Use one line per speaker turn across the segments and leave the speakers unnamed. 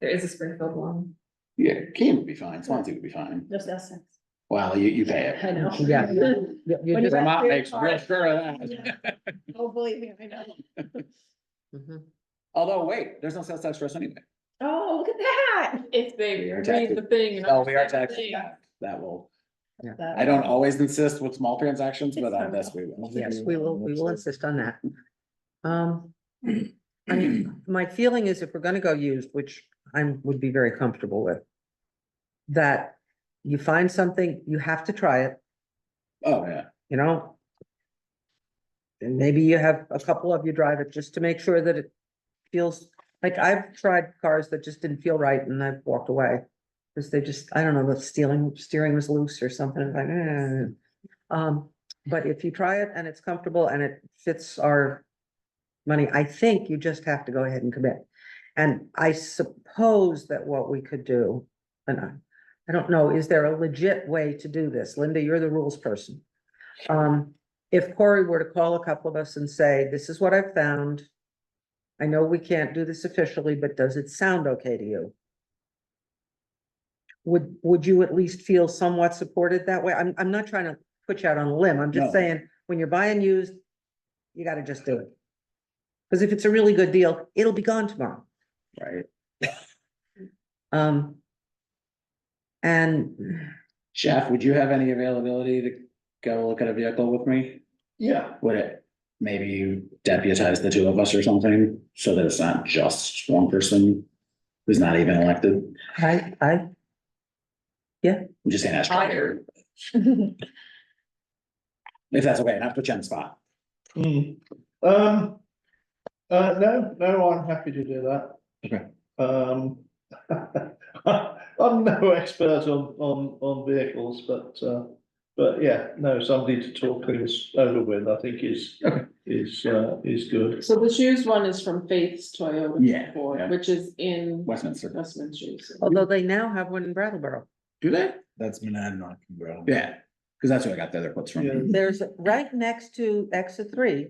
There is a Springfield one.
Yeah, Keene would be fine, Swansea would be fine.
Just us.
Well, you, you pay
I
it.
know.
Yeah. You- you
When you
just-
got-
Vermont makes real sure of that.
Oh, believe me, I know.
Mhm.
Although, wait, there's no sales tax for us anyway.
Oh, look at that.
It's baby,
We are
read the
taxed.
thing. and
Oh, we are
understand the
taxed.
thing.
That will,
That-
I don't always insist with small transactions, but on this we will.
Yes, we will, we will insist on that. Um, I mean, my feeling is if we're gonna go used, which I'm, would be very comfortable with, that you find something, you have to try it,
Oh, yeah.
you know? And maybe you have a couple of you drive it just to make sure that it feels, like I've tried cars that just didn't feel right and I've walked away. Cause they just, I don't know, the stealing, steering was loose or something, like, eh. Um, but if you try it and it's comfortable and it fits our money, I think you just have to go ahead and commit. And I suppose that what we could do, and I, I don't know, is there a legit way to do this? Linda, you're the rules person. Um, if Corey were to call a couple of us and say, this is what I've found. I know we can't do this officially, but does it sound okay to you? Would, would you at least feel somewhat supported that way? I'm, I'm not trying to put you out on a limb. I'm just
No.
saying, when you're buying used, you gotta just do it. Cause if it's a really good deal, it'll be gone tomorrow.
Right.
Um. And
Jeff, would you have any availability to go look at a vehicle with me? Yeah. Would it, maybe you deputize the two of us or something, so that it's not just one person who's not even elected?
I, I,
I'm just saying, ask her
Tired.
if that's okay, not put you on the spot.
Hmm, um, uh, no, no, I'm happy to do that.
Okay.
Um, I'm no expert on, on, on vehicles, but, uh, but yeah, no, somebody to talk things over with, I think is,
Okay.
is, uh, is good.
So the shoes one is from Faith's Toyota.
Yeah,
Ford,
yeah.
Which is in
Westminster.
Westminster Shoes.
although they now have one in Brattleboro.
Do they?
That's Monadnock and Brattleboro.
Yeah, because that's where I got the other quotes
Yeah.
from.
There's, right next to exit three.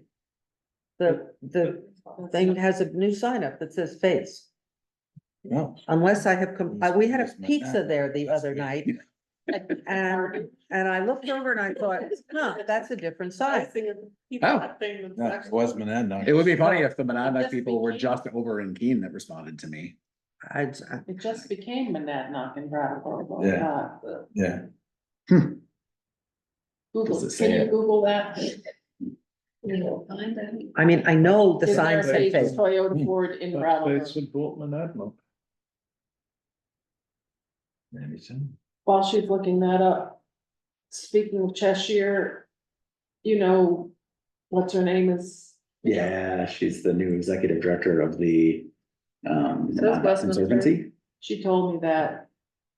The, the thing has a new sign up that says face,
Wow.
unless I have, com- uh, we had a
Just met
pizza
that.
there the other night.
um,
And, and I looked over and I thought, huh, that's a different
I
sign.
think of- keep
Oh.
that thing that's
No, it
actually-
was Monadnock.
It would be funny if the Monadnock
Just
people were
thinking.
just over in Keene that responded to me.
I, I-
It just became Monadnock and Brattleboro.
Yeah.
not uh, the-
Yeah.
Google,
Does it
can
say
you
it?
Google that?
You'll find it.
I mean, I know the
Is there
sign
a
said
Faith's
face.
Toyota Ford
Hmm.
in Brattleboro.
That's important, Admiral.
Anderson.
While she's looking that up, speaking of Cheshire, you know, what's her name is?
Yeah, she's the new executive director of the um
So is
Monadnock
Westminster.
Conservancy.
She told me that,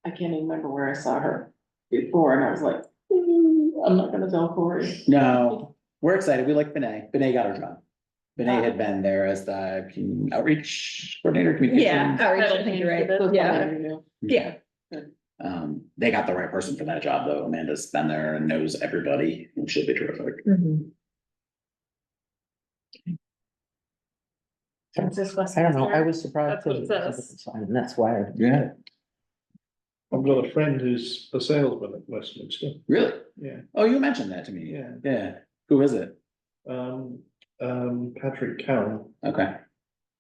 I can't even remember where I saw her before, and I was like, "Ooh, I'm not gonna tell Corey.
No, we're excited. We like Benay. Benay got her job. Benay had been there as the outreach coordinator.
Yeah,
communications.
outreach, I think you're right, yeah, yeah.
Um, they got the right person for that job, though. Amanda's been there and knows everybody, and she'll be terrific.
Mhm.
I don't know, I was surprised.
That's what it
that it was a
says.
different sign, And that's why I
Yeah.
I've got a friend who's a salesman at Westminster,
Really?
yeah,
Oh, you mentioned that to me.
Yeah.
Yeah. Who is it?
um, um, Patrick Carroll.
Okay.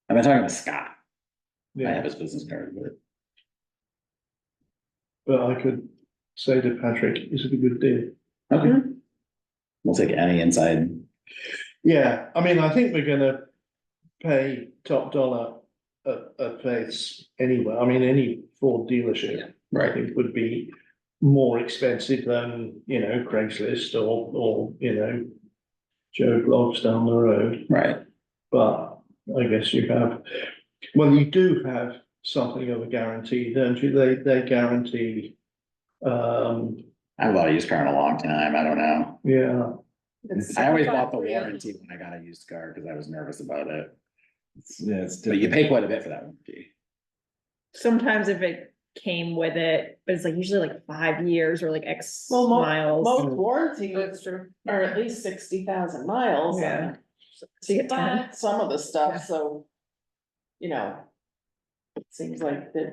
I've been talking to Scott. I
Yeah,
have his business card, but
but I could say to Patrick, is it a good deal?
okay. We'll take any inside.
Yeah, I mean, I think we're gonna pay top dollar a, a place anywhere. I mean, any Ford dealership, I think would be more expensive than, you know, Craigslist or, or, you know, Joe Blogs down the road,
Right.
but I guess you have, well, you do have something of a guarantee, don't you? They, they guarantee, um,
I haven't bought a used car in a long time. I don't know.
yeah,
I always bought the warranty when I got a used car because I was nervous about it.
Yeah, it's
But you
different.
pay quite a bit for that warranty.
Sometimes if it came with it, but it's like usually like five years or like X
Well, mo-
miles.
Most warranties
That's true.
are at least sixty thousand miles.
Yeah.
But some of the stuff, so, you know, It seems like that